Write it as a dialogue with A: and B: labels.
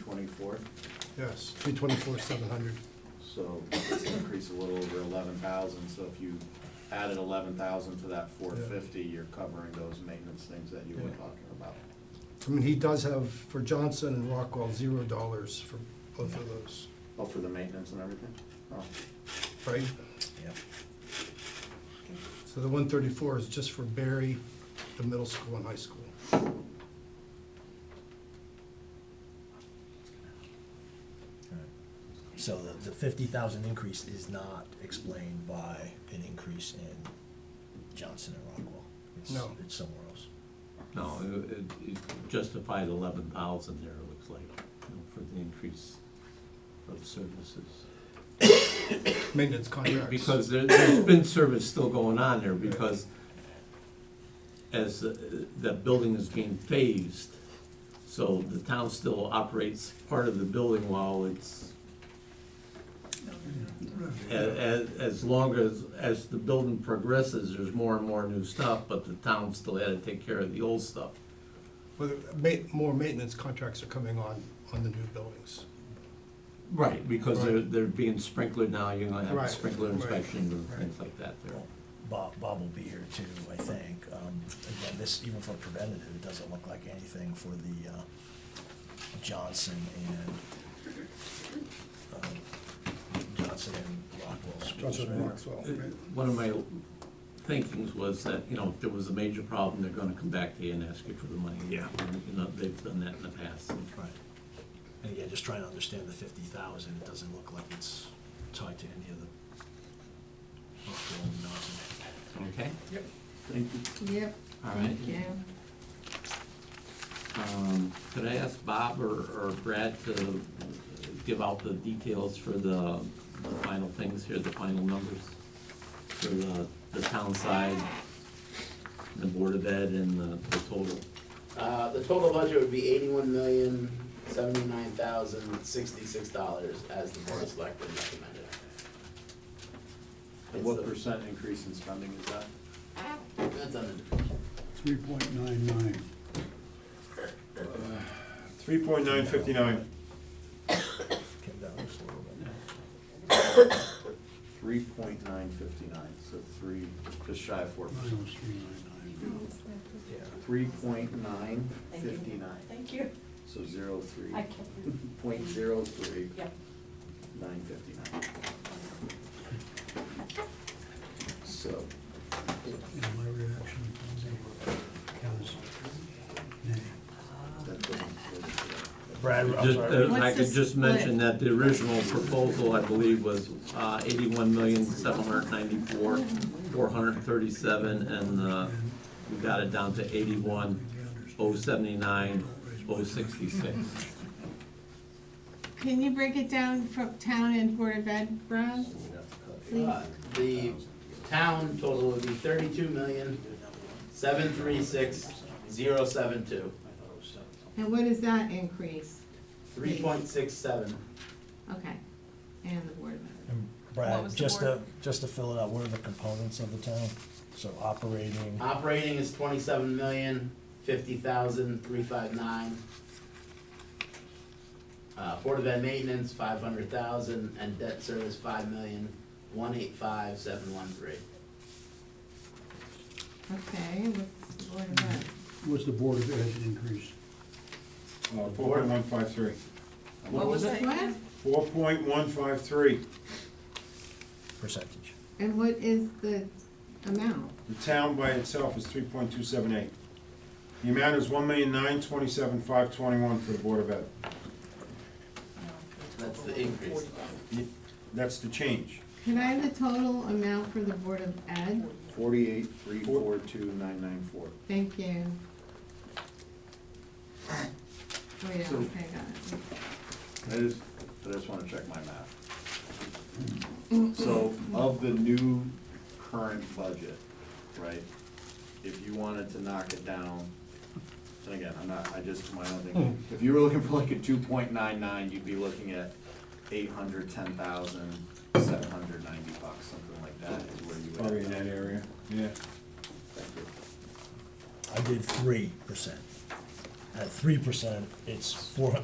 A: twenty-four,
B: Yes, three twenty-four, seven hundred.
A: so it's an increase a little over eleven thousand, so if you added eleven thousand to that four fifty, you're covering those maintenance things that you were
B: Yeah.
A: talking about.
B: I mean, he does have, for Johnson and Rockwell, zero dollars for both of those,
A: Oh, for the maintenance and everything? Oh,
B: right?
A: yeah.
B: So the one thirty-four is just for Barry, the middle school and high school.
C: So the, the fifty thousand increase is not explained by an increase in Johnson and Rockwell. It's-
B: No.
C: It's somewhere else.
D: No, it- it it justified eleven thousand there, it looks like, you know, for the increase of services.
B: Maintenance contracts.
D: Because there, there's been service still going on there, because as the, the building is being phased, so the town still operates part of the building while it's as, as long as, as the building progresses, there's more and more new stuff, but the town still had to take care of the old stuff.
B: Whether, ma- more maintenance contracts are coming on, on the new buildings.
D: Right, because they're,
B: Right.
D: they're being sprinkler now, you're gonna have
B: Right,
D: a sprinkler
B: right,
D: inspection and
B: right.
D: things like that there.
C: Bob, Bob will be here too, I think. Um, again, this, even for preventative, it doesn't look like anything for the, uh, Johnson and, um, Johnson and Rockwell schools.
B: Johnson and
C: right?
B: Rockwell,
D: Uh,
B: right?
D: One of my thinkings was that, you know, if there was a major problem, they're gonna come back to you and ask you for the money. Yeah. You know, they've done that in the past.
C: Right. And again, just trying to understand the fifty thousand, it doesn't look like it's tied to any of the Rockwell and Johnson.
D: Okay,
A: Thank you.
E: Yep,
D: all right.
E: thank you.
D: Um, Could I ask Bob or, or Brad to give out the details for the the final things here, the final numbers? For the, the town side, the Board of Ed and the, the total?
F: Uh, the total budget would be eighty-one million, seventy-nine thousand, sixty-six dollars as the board of selectmen recommended.
A: And what percent increase in spending is that?
F: That's on
G: Three point nine nine.
H: Three point nine fifty-nine.
C: Came down just a little bit.
A: Three point nine fifty-nine, so three, just shy of four percent.
G: Minus three nine nine.
C: Yeah.
A: Three point nine
E: Thank you.
A: fifty-nine,
E: Thank you.
A: so zero three,
E: I can't,
A: point zero three,
E: yep.
A: nine fifty-nine. So,
G: And my reaction was, nay.
A: that doesn't.
C: Brad, I'm
D: Just,
C: sorry.
D: uh, I
E: What's
D: could
E: the
D: just mention
E: split?
D: that the original proposal, I believe, was uh, eighty-one million, seven hundred ninety-four, four hundred thirty-seven, and uh, we got it down to eighty-one, oh seventy-nine, oh sixty-six.
E: Can you break it down from town and Board of Ed, Ron?
F: the, uh, the town total would be thirty-two million, seven three six, zero seven two,
E: And what is that increase?
F: three point six seven.
E: Okay, and the Board of Ed.
C: And
I: What
C: Brad,
I: was the
C: just to,
I: word?
C: just to fill it out, what are the components of the town? So operating,
F: Operating is twenty-seven million, fifty thousand, three five nine. Uh, Board of Ed maintenance, five hundred thousand, and debt service, five million, one eight five, seven one three.
E: Okay, what's the Board of Ed?
G: What's the Board of Ed increase?
H: Uh, Four point one five three.
I: What was that?
E: What?
H: Four point one five three.
C: percentage.
E: And what is the amount?
H: The town by itself is three point two seven eight. The amount is one million nine twenty-seven five twenty-one for the Board of Ed.
F: That's the increase.
H: That's the change.
E: Can I have the total amount for the Board of Ed?
A: Forty-eight, three, four, two, nine, nine, four.
E: Thank you. Wait, okay, got it.
A: I just, I just wanna check my math. So of the new current budget, right, if you wanted to knock it down, and again, I'm not, I just, my own thing,
H: Hmm.
A: if you were looking for like a two point nine nine, you'd be looking at eight hundred, ten thousand, seven hundred ninety bucks, something like that is where you would.
H: Probably in that area, Oh, yeah.
A: Thank you.
C: I did three percent. At three percent, it's four,